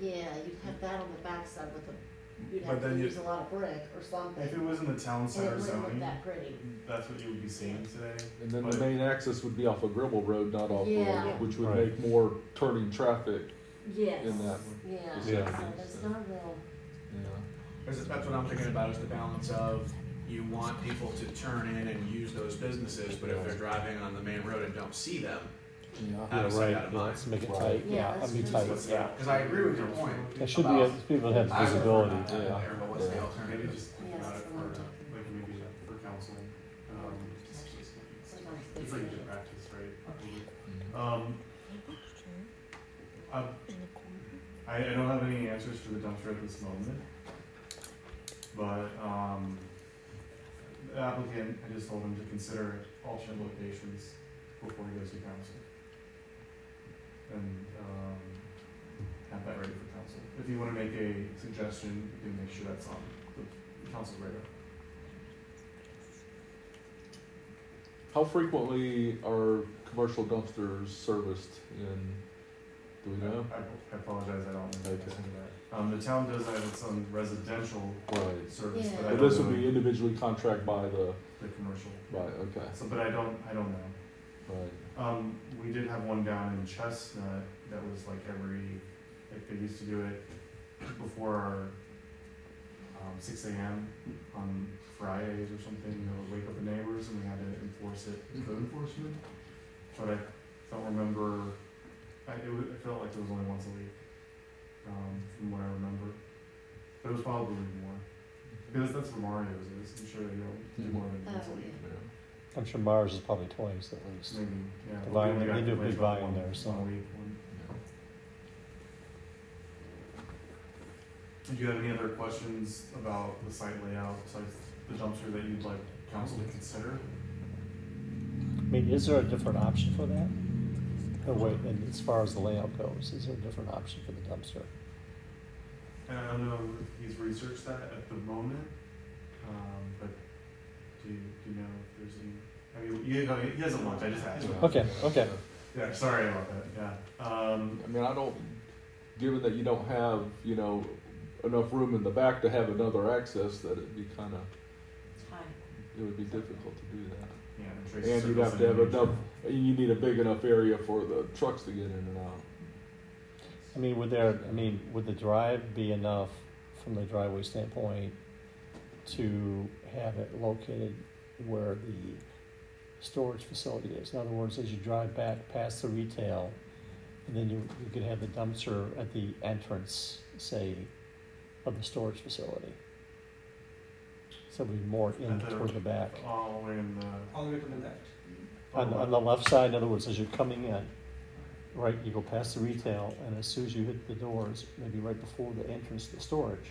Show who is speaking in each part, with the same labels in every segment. Speaker 1: Yeah, you'd have that on the backside with a, you'd
Speaker 2: But
Speaker 1: have to
Speaker 2: then you-
Speaker 1: use a lot of brick or something.
Speaker 2: If it was in the town
Speaker 1: And it
Speaker 2: center
Speaker 1: wouldn't look
Speaker 2: zoning,
Speaker 1: that pretty.
Speaker 2: that's what you would be seeing today.
Speaker 3: And then the
Speaker 2: But-
Speaker 3: main access would be off of Gribble Road, not off,
Speaker 1: Yeah.
Speaker 3: Road, which would
Speaker 4: Right.
Speaker 3: make more turning traffic
Speaker 1: Yes.
Speaker 3: in that,
Speaker 1: Yeah,
Speaker 3: Yeah.
Speaker 1: so there's no real,
Speaker 3: yeah.
Speaker 5: That's, that's what I'm thinking about is the balance of you want people to turn in and use those businesses, but if they're driving on the main road and don't see them,
Speaker 3: Yeah.
Speaker 4: Yeah,
Speaker 5: Out of sight,
Speaker 4: right,
Speaker 5: out of
Speaker 4: yeah,
Speaker 5: mind.
Speaker 4: let's make it
Speaker 3: Right.
Speaker 4: tight,
Speaker 1: Yeah,
Speaker 4: yeah,
Speaker 1: that's
Speaker 4: that'd be
Speaker 1: true.
Speaker 4: tight,
Speaker 2: That's-
Speaker 4: yeah.
Speaker 5: because I agree with your point.
Speaker 4: It should be,
Speaker 5: about-
Speaker 4: people have
Speaker 5: I prefer
Speaker 4: visibility,
Speaker 5: not to
Speaker 4: yeah.
Speaker 5: there, But what's the
Speaker 2: Maybe
Speaker 5: alternative?
Speaker 2: just think about it
Speaker 1: Yes,
Speaker 2: for,
Speaker 1: I'm
Speaker 2: like, maybe for council. Um,
Speaker 1: sometimes
Speaker 2: It's
Speaker 1: they
Speaker 2: like
Speaker 1: do.
Speaker 2: good practice,
Speaker 3: Mm-hmm.
Speaker 2: right? Um, I, I I don't have any answers for the dumpster at this moment. But, um, the applicant, I just told him to consider alternate locations before he goes to council. And, um, have that ready for council. If you wanna make a suggestion, you can make sure that's on the council radar.
Speaker 3: How frequently are commercial dumpsters serviced in, do we know? uh,
Speaker 2: I I apologize, I don't know.
Speaker 3: Okay.
Speaker 2: Um, the town does have its own residential
Speaker 3: Right,
Speaker 2: service, but I
Speaker 3: but
Speaker 2: don't
Speaker 3: this would be
Speaker 2: know
Speaker 3: individually contract by the,
Speaker 2: the commercial.
Speaker 3: right, okay,
Speaker 2: So, but I don't, I don't know.
Speaker 3: right.
Speaker 2: Um, we did have one down in Chestnut that was like every, like they used to do it before our, um, six AM on Fridays or something, you know, wake up the neighbors and we had to enforce it, with code enforcement. But I don't remember, I, it wa- it felt like it was only once a week, um, from what I remember. But it was probably more, because that's what Mario's is, I'm sure they don't do more than once a
Speaker 1: Oh,
Speaker 2: week.
Speaker 1: yeah.
Speaker 4: I'm sure Mars is probably twice at least.
Speaker 2: Maybe, Mm-hmm, yeah.
Speaker 4: The
Speaker 2: Well, we
Speaker 4: volume-
Speaker 2: only
Speaker 4: they
Speaker 2: got
Speaker 4: do a big
Speaker 2: complaints about
Speaker 4: volume
Speaker 2: one-
Speaker 4: there, so.
Speaker 2: one week, one- Do you have any other questions about the site layout, besides the dumpster that you'd like council to consider?
Speaker 4: I mean, is there a different option for that? Oh, wait, and as far as the layout goes, is there a different option for the dumpster?
Speaker 2: And I don't know if he's researched that at the moment, um, but do you, do you know if there's any, I mean, you know, he doesn't want, I just asked.
Speaker 3: Yeah.
Speaker 4: Okay, okay.
Speaker 2: Yeah, sorry about that, yeah. Um,
Speaker 3: I mean, I don't, given that you don't have, you know, enough room in the back to have another access, that it'd be kinda,
Speaker 1: It's high.
Speaker 3: it would be difficult to do that.
Speaker 2: yeah. and Tracy
Speaker 3: And
Speaker 2: said
Speaker 3: you'd have
Speaker 2: that's
Speaker 3: to have
Speaker 2: in the
Speaker 3: enough,
Speaker 2: future.
Speaker 3: you need a big enough area for the trucks to get in and out.
Speaker 4: I mean, would there, I mean, would the drive be enough from the driveway standpoint to have it located where the storage facility is? In other words, as you drive back past the retail, and then you, you could have the dumpster at the entrance, say, of the storage facility. So it'd be more in
Speaker 2: At the-
Speaker 4: toward the back.
Speaker 2: All the way in the.
Speaker 6: all the way to the left.
Speaker 4: On, on the left side, in other words, as you're coming in, right, you go past the retail, and as soon as you hit the doors, maybe right before the entrance to storage,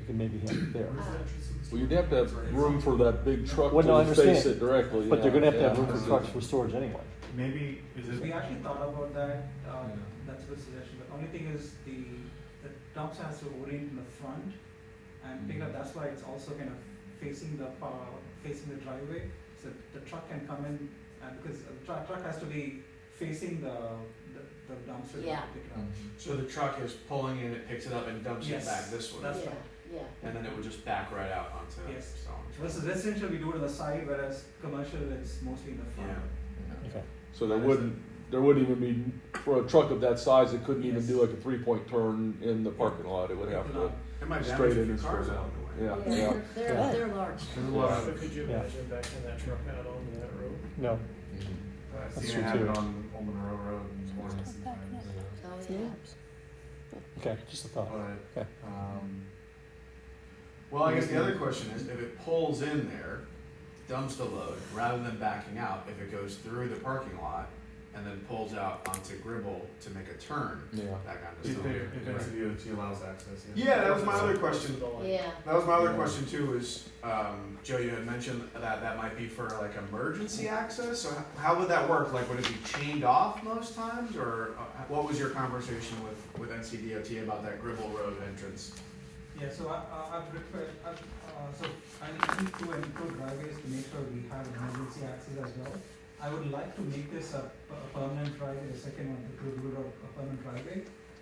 Speaker 4: you can maybe have it there.
Speaker 2: Where's the entrance of the
Speaker 3: Well, you'd have to have room for that big truck
Speaker 4: Well, no, I
Speaker 3: to face
Speaker 4: understand.
Speaker 3: it directly.
Speaker 4: But they're gonna have to have
Speaker 3: yeah.
Speaker 4: room for trucks for storage anyway.
Speaker 2: Maybe, is it?
Speaker 6: We actually thought about that, uh,
Speaker 3: Yeah.
Speaker 6: that's a good suggestion, but only thing is the, the dumpster has to orient in the front and pick up, that's why it's also kind of facing the, pa- facing the driveway, so the truck can come in, and because the truck, truck has to be facing the, the the dumpster
Speaker 1: Yeah.
Speaker 6: to pick it up.
Speaker 3: Mm.
Speaker 5: So the truck is pulling in, it picks it up and dumps it
Speaker 6: Yes,
Speaker 5: back this way,
Speaker 6: That's
Speaker 1: Yeah,
Speaker 6: right.
Speaker 1: yeah.
Speaker 5: and then it would just back right out onto
Speaker 6: Yes.
Speaker 5: Stone.
Speaker 6: Versus residential, we do it on the side, whereas commercial, it's mostly in the front.
Speaker 5: Yeah.
Speaker 4: Okay.
Speaker 3: So there wouldn't, there wouldn't even be, for a truck of that size, it couldn't even
Speaker 6: Yes.
Speaker 3: do like a three-point turn in the parking lot. It would have to
Speaker 5: It might
Speaker 3: straight
Speaker 5: damage a
Speaker 3: in
Speaker 5: few
Speaker 3: and
Speaker 5: cars
Speaker 3: straight
Speaker 5: along
Speaker 3: out.
Speaker 5: the way.
Speaker 3: Yeah, yeah.
Speaker 1: They're,
Speaker 4: Yeah.
Speaker 1: they're, they're large.
Speaker 2: There's a lot of.
Speaker 7: Could you
Speaker 4: Yeah.
Speaker 7: imagine backing that truck out onto that road?
Speaker 4: No,
Speaker 3: Mm-hmm.
Speaker 2: I've
Speaker 4: That's
Speaker 2: seen
Speaker 4: true,
Speaker 2: it happen
Speaker 4: too.
Speaker 2: on Old Monroe Road more than sometimes,
Speaker 1: Oh, yeah.
Speaker 4: okay, just a thought.
Speaker 2: but,
Speaker 4: Okay.
Speaker 2: um,
Speaker 5: Well, I guess the other question is, if it pulls in there, dumps the load, rather than backing out, if it goes through the parking lot and then pulls out onto Gribble to make a turn
Speaker 3: Yeah.
Speaker 5: back onto
Speaker 2: if
Speaker 5: Stone.
Speaker 2: it, if NCDOT allows access, yeah.
Speaker 5: Yeah, that was my other question.
Speaker 1: Yeah,
Speaker 5: That was my other question too. Is um, Joe, you had mentioned that that might be for like emergency access. So how, how would that work? Like, would it be chained off most times, or uh, what was your conversation with with NCDOT about that Gribble Road entrance?
Speaker 6: Yeah, so I, I, I prefer, I, uh, so I need to include driveways to make sure we have emergency access as well. I would like to make this a, a permanent driveway, the second one, the Grove Road, a permanent driveway,